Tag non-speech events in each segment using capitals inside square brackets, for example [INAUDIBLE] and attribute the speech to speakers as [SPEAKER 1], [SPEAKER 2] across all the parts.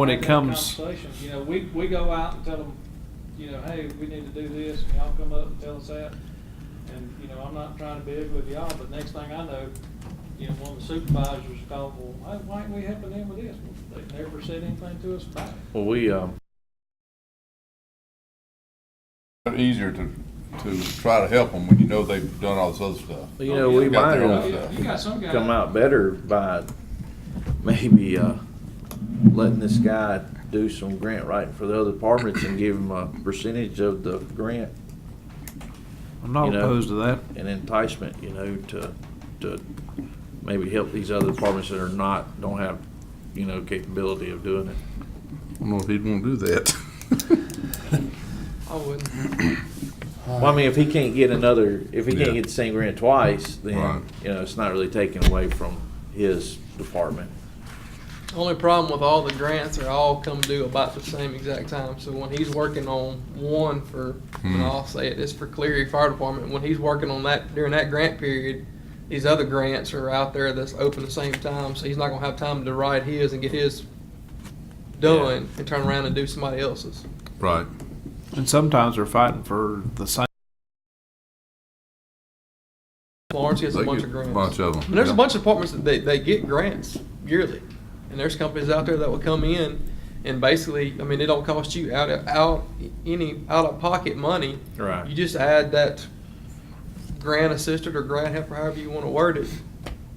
[SPEAKER 1] When it
[SPEAKER 2] have that
[SPEAKER 1] comes-
[SPEAKER 2] conversation. You know, we, we go out and tell them, you know, hey, we need to do this, and y'all come up and tell us that. And, you know, I'm not trying to bid with y'all, but next thing I know, you know, one of the supervisors called, well, hey, why ain't we helping them with this? Well, They never said anything to us about it.
[SPEAKER 1] Well, we, um,
[SPEAKER 3] They're Easier to, to try to help them when you know they've done all this other stuff.
[SPEAKER 1] you know, we
[SPEAKER 3] They've got
[SPEAKER 1] might
[SPEAKER 3] their own
[SPEAKER 1] have
[SPEAKER 3] stuff.
[SPEAKER 2] You got some guy.
[SPEAKER 1] come out better by maybe, uh, letting this guy do some grant writing for the other departments and give him a percentage of the grant
[SPEAKER 4] I'm not
[SPEAKER 1] You know.
[SPEAKER 4] opposed to that.
[SPEAKER 1] and enticement, you know, to, to maybe help these other departments that are not, don't have, you know, capability of doing it.
[SPEAKER 3] I don't know if he'd wanna do that. [LAUGHS]
[SPEAKER 2] I wouldn't.
[SPEAKER 1] Well, I mean, if he can't get another, if he
[SPEAKER 3] Yeah.
[SPEAKER 1] can't get the same grant twice,
[SPEAKER 3] Right.
[SPEAKER 1] then, you know, it's not really taken away from his department.
[SPEAKER 5] Only problem with all the grants are all come due about the same exact time. So when he's working on one for,
[SPEAKER 3] Hmm.
[SPEAKER 5] and I'll say it, it's for Cleary Fire Department. When he's working on that during that grant period, these other grants are out there that's open the same time. So he's not gonna have time to write his and get his done and turn around and do somebody else's.
[SPEAKER 3] Right.
[SPEAKER 4] And sometimes they're fighting for the same.
[SPEAKER 5] Florence gets a
[SPEAKER 3] They
[SPEAKER 5] bunch
[SPEAKER 3] get
[SPEAKER 5] of grants.
[SPEAKER 3] Bunch of them.
[SPEAKER 5] And there's a bunch of departments that they, they get grants yearly. And there's companies out there that will come in and basically, I mean, it don't cost you out of, out, any out-of-pocket money.
[SPEAKER 1] Right.
[SPEAKER 5] You just add that grant assistant or grant helper, however you want to word it,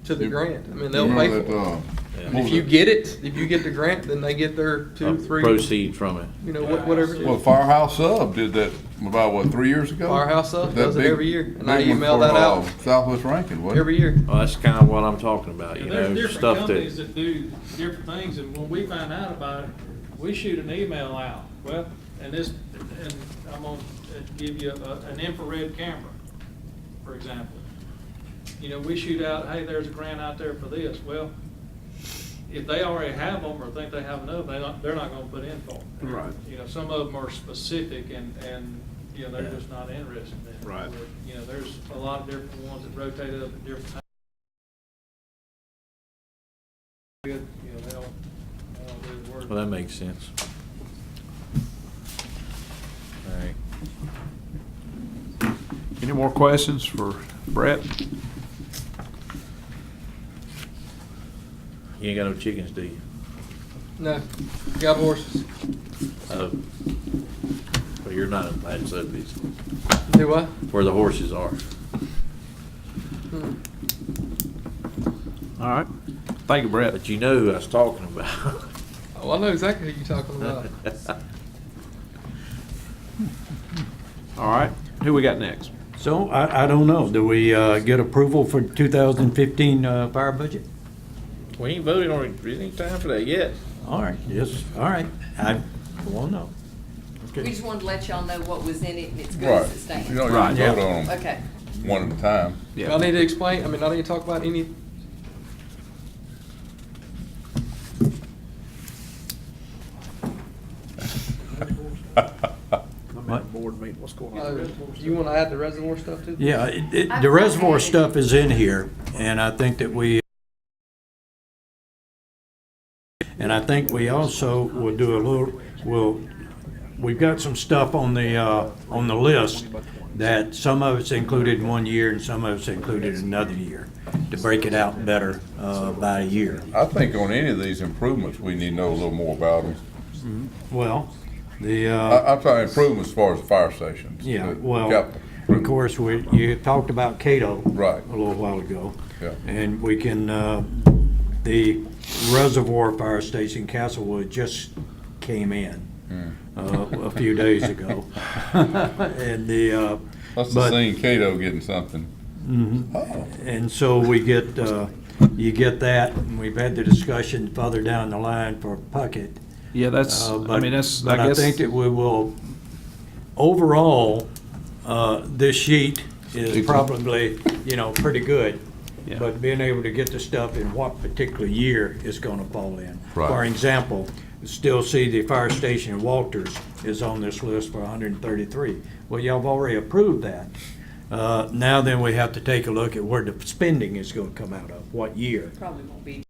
[SPEAKER 5] to the
[SPEAKER 3] You-
[SPEAKER 5] grant. I mean,
[SPEAKER 3] You
[SPEAKER 5] they'll
[SPEAKER 3] know
[SPEAKER 5] pay
[SPEAKER 3] that,
[SPEAKER 5] for it.
[SPEAKER 3] uh,
[SPEAKER 1] Yeah.
[SPEAKER 5] And If you get it, if you get the grant, then they get their
[SPEAKER 1] Uh,
[SPEAKER 5] two, three,
[SPEAKER 1] Proceed from it.
[SPEAKER 5] you know, what- whatever. it is.
[SPEAKER 3] Well, Firehouse Sub did that about, what, three years ago?
[SPEAKER 5] Firehouse Sub
[SPEAKER 3] That
[SPEAKER 5] does it
[SPEAKER 3] big-
[SPEAKER 5] every year, and I
[SPEAKER 3] big one
[SPEAKER 5] email
[SPEAKER 3] for,
[SPEAKER 5] that
[SPEAKER 3] uh,
[SPEAKER 5] out.
[SPEAKER 3] Southwest Rankin, wasn't it?
[SPEAKER 5] Every year.
[SPEAKER 1] Well, that's kind of what I'm talking about, you
[SPEAKER 2] Yeah, there's
[SPEAKER 1] know,
[SPEAKER 2] different
[SPEAKER 1] stuff
[SPEAKER 2] companies
[SPEAKER 1] that,
[SPEAKER 2] that do different things, and when we find out about it, we shoot an email out. Well, and this, and I'm gonna uh, give you a, an infrared camera, for example. You know, we shoot out, hey, there's a grant out there for this. Well, if they already have them or think they have enough, they don't, they're not gonna put in for them.
[SPEAKER 4] Right.
[SPEAKER 2] You know, some of them are specific and, and, you know, they're just not interested in it.
[SPEAKER 4] Right.
[SPEAKER 2] You know, there's a lot of different ones that rotate up at different times. good, you know, they don't, they don't do the work.
[SPEAKER 1] well, that makes sense. All right.
[SPEAKER 4] Any more questions for Brett?
[SPEAKER 1] You ain't got no chickens, do you?
[SPEAKER 5] No, got horses.
[SPEAKER 1] Oh. Well, you're not in bad subdivision,
[SPEAKER 5] Do what?
[SPEAKER 1] where the horses are.
[SPEAKER 5] Hmm.
[SPEAKER 4] All right. Thank you, Brett.
[SPEAKER 1] But you know who I was talking about. [LAUGHS]
[SPEAKER 5] Oh, I know exactly who you're talking about.
[SPEAKER 4] All right. Who we got next?
[SPEAKER 6] So I, I don't know, do we uh, get approval for 2015 uh, fire budget?
[SPEAKER 1] We ain't voted on it, there ain't time for that yet.
[SPEAKER 6] All right, yes, all right, I will know.
[SPEAKER 7] We just wanted to let y'all know what was in it and it's good
[SPEAKER 3] Right.
[SPEAKER 7] as it stands.
[SPEAKER 3] You don't
[SPEAKER 4] Right,
[SPEAKER 3] even
[SPEAKER 4] yeah.
[SPEAKER 3] vote on them
[SPEAKER 7] Okay.
[SPEAKER 3] one at a time. [LAUGHS]
[SPEAKER 5] Do I need to explain, I mean, I need to talk about any,
[SPEAKER 4] I'm
[SPEAKER 6] at a
[SPEAKER 4] board meeting. What's going
[SPEAKER 5] uh, you want to add the reservoir stuff to?
[SPEAKER 6] Yeah, it- it- the reservoir stuff is in here, and I think that we, and I think we also will do a little, will, we've got some stuff on the, uh, on the list that some of it's included in one year and some of it's included in another year, to break it out better uh, by a year.
[SPEAKER 3] I think on any of these improvements, we need to know a little more about them.
[SPEAKER 6] Well, the. uh,
[SPEAKER 3] I, I'm talking improvements as far as the fire stations.
[SPEAKER 6] Yeah,
[SPEAKER 3] the
[SPEAKER 6] well,
[SPEAKER 3] capital
[SPEAKER 6] of course, we, you talked about Cato.
[SPEAKER 3] Right.
[SPEAKER 6] A little while ago.
[SPEAKER 3] Yeah.
[SPEAKER 6] And we can, uh, the reservoir fire station Castlewood just came in, uh, a few days ago. And the, uh,
[SPEAKER 3] Must have
[SPEAKER 6] but- Mm-hmm.
[SPEAKER 3] seen Cato getting something. Oh,
[SPEAKER 6] and so we get, uh, you get that, and we've had the discussion further down the line for Puckett.
[SPEAKER 4] Yeah, that's,
[SPEAKER 6] Uh,
[SPEAKER 4] I
[SPEAKER 6] but-
[SPEAKER 4] mean, that's,
[SPEAKER 6] But
[SPEAKER 4] I
[SPEAKER 6] I
[SPEAKER 4] guess.
[SPEAKER 6] think that we will, overall, uh, this sheet is probably, you know, pretty good.
[SPEAKER 4] Yeah.
[SPEAKER 6] But being able to get the stuff in what particular year it's gonna fall in.
[SPEAKER 3] Right.
[SPEAKER 6] For example, still see the fire station in Walters is on this list for hundred and thirty-three. Well, y'all have already approved that. Uh, Now then, we have to take a look at where the spending is gonna come out of, what year.
[SPEAKER 7] Probably won't be